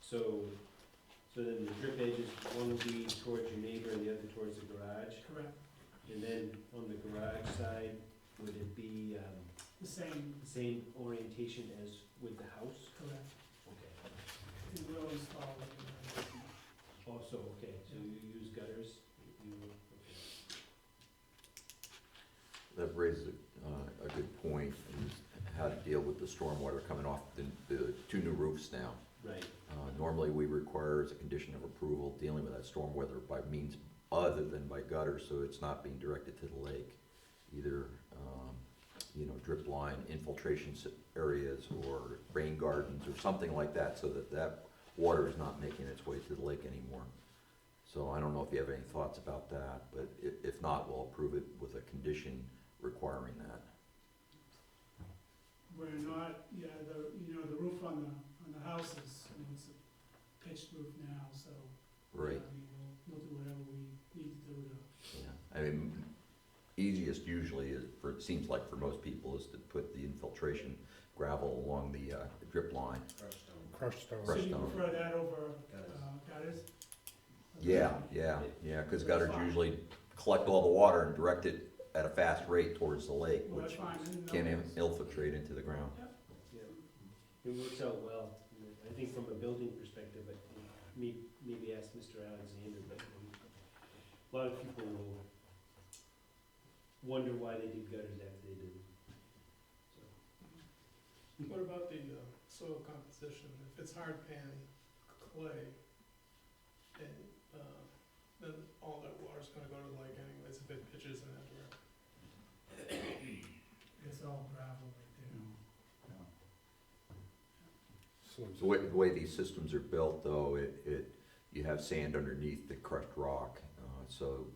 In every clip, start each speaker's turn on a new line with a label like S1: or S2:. S1: So, so then the drip edges, one would be towards your neighbor and the other towards the garage?
S2: Correct,
S1: And then on the garage side, would it be um,
S2: the same,
S1: the same orientation as with the house?
S2: correct,
S1: Okay.
S2: it will install. it.
S1: Also, okay, so you use gutters? you- okay.
S3: That raises a, uh, a good point, is how to deal with the stormwater coming off the, the two new roofs now.
S1: Right,
S3: Uh, Normally, we require as a condition of approval, dealing with that stormwater by means other than by gutter, so it's not being directed to the lake. Either, um, you know, drip line infiltration s- areas or rain gardens or something like that, so that that water is not making its way to the lake anymore. So I don't know if you have any thoughts about that, but i- if not, we'll approve it with a condition requiring that.
S2: We're not, yeah, the, you know, the roof on the, on the house is, you know, it's a pitched roof now, so. you know,
S3: Right.
S2: I mean, we'll, we'll do whatever we need to do to,
S3: Yeah, I mean, easiest usually is, for, it seems like for most people, is to put the infiltration gravel along the uh, drip line.
S4: crushed stone.
S2: so
S3: Crushed
S2: you
S3: stone.
S2: prefer that over,
S5: Gutters.
S2: uh, gutters?
S3: Yeah, yeah, yeah, because gutters usually collect all the water and direct it at a fast rate towards the lake,
S2: Well, that's
S3: which
S2: fine, I didn't know
S3: can
S2: that.
S3: infiltrate into the ground.
S1: yeah. It works out well. I think from a building perspective, I think, may- maybe ask Mr. Alexander, but um, a lot of people will wonder why they did gutters after they did them. So,
S6: What about the uh, soil composition? If it's hard pan clay, and uh, then all that water's gonna go to the lake anyways if it pitches in that direction.
S2: It's all gravel right
S4: Slims
S3: The way, the way these systems are built, though, it, it, you have sand underneath the crushed rock, uh, so,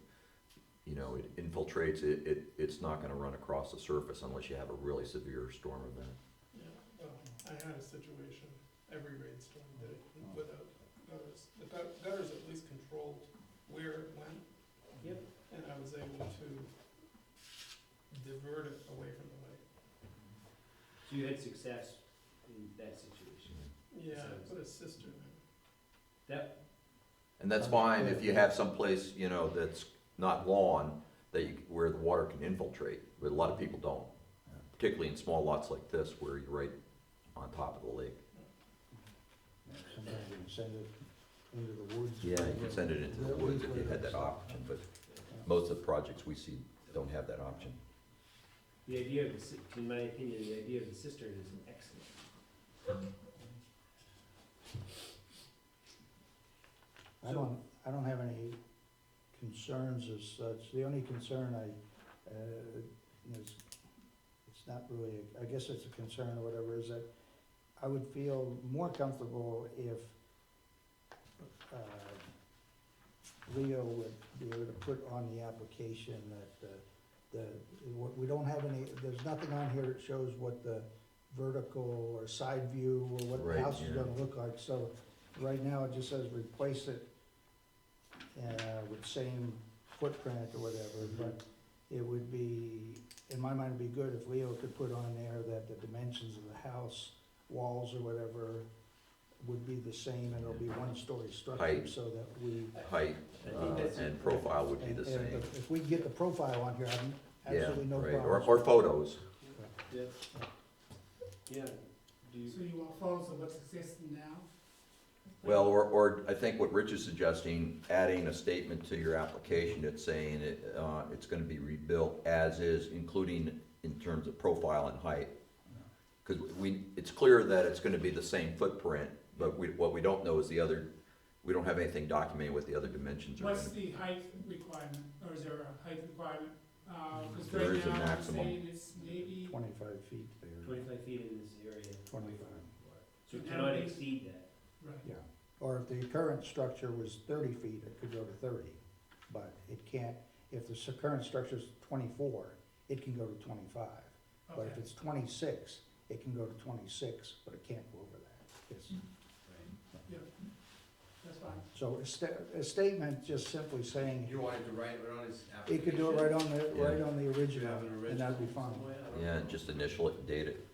S3: you know, it infiltrates, it, it, it's not gonna run across the surface unless you have a really severe storm event.
S6: Yeah. Well, I had a situation, every rainstorm did it without gutters. The gut- gutters at least controlled where it went.
S1: Yep.
S6: And I was able to divert it away from the lake.
S1: So you had success in that situation?
S6: Yeah,
S1: So-
S6: I put a cistern in.
S1: That,
S3: And that's fine if you have someplace, you know, that's not lawn, that you, where the water can infiltrate, but a lot of people don't. Particularly in small lots like this where you're right on top of the lake.
S4: Sometimes you can send it into the woods.
S3: Yeah, you could send it into the woods if you had that option, but most of the projects we see don't have that option.
S1: the idea of, the ci- in my opinion, the idea of the cistern is excellent.
S4: I don't, I don't have any concerns as such. The only concern I, uh, is, it's not really, I guess it's a concern or whatever, is that I would feel more comfortable if, uh, Leo would be able to put on the application that, uh, the, what- we don't have any, there's nothing on here that shows what the vertical or side view or what
S3: Right,
S4: the house is
S3: yeah.
S4: gonna look like, so Right now, it just says replace it uh, with same footprint or whatever, but it would be, in my mind, it'd be good if Leo could put on there that the dimensions of the house, walls or whatever, would be the same, and it'll be one-story structure,
S3: Height.
S4: so that we.
S3: Height
S1: I
S3: uh,
S1: think that's a-
S3: and profile would be
S4: and-
S3: the
S4: and
S3: same.
S4: If if we can get the profile on here, I'm
S3: Yeah,
S4: absolutely no
S3: right,
S4: problem.
S3: or, or photos.
S1: Yeah. Yeah, do
S2: there.
S1: you?
S2: So you want photos of what's existing now?
S3: Well, or, or I think what Rich is suggesting, adding a statement to your application that's saying it, uh, it's gonna be rebuilt as is, including in terms of profile and height. Cause we, it's clear that it's gonna be the same footprint, but we, what we don't know is the other, we don't have anything documenting what the other dimensions are.
S2: What's
S3: gonna be.
S2: the height requirement, or is there a height requirement? Uh, cause
S3: Mm-hmm. There
S2: right
S3: is a
S2: now, I'm
S3: maximum.
S2: saying it's maybe,
S4: Twenty-five feet there,
S1: Twenty-five feet in this area.
S4: 25.
S1: So you cannot exceed that.
S2: right,
S4: yeah. Or if the current structure was thirty feet, it could go to thirty, but it can't, if the s- current structure's twenty-four, it can go to twenty-five. But if
S2: okay,
S4: it's twenty-six, it can go to twenty-six, but it can't go over that. It's-
S2: that's fine.
S4: So a sta- a statement just simply saying,
S5: You wanted to write it on his application?
S4: it could do it right on the, right
S3: Yeah.
S4: on the
S5: Do you
S4: original,
S5: have an
S4: and that'd be fine.
S5: original somewhere? I don't
S3: Yeah,
S5: know.
S3: and just initial it and date it.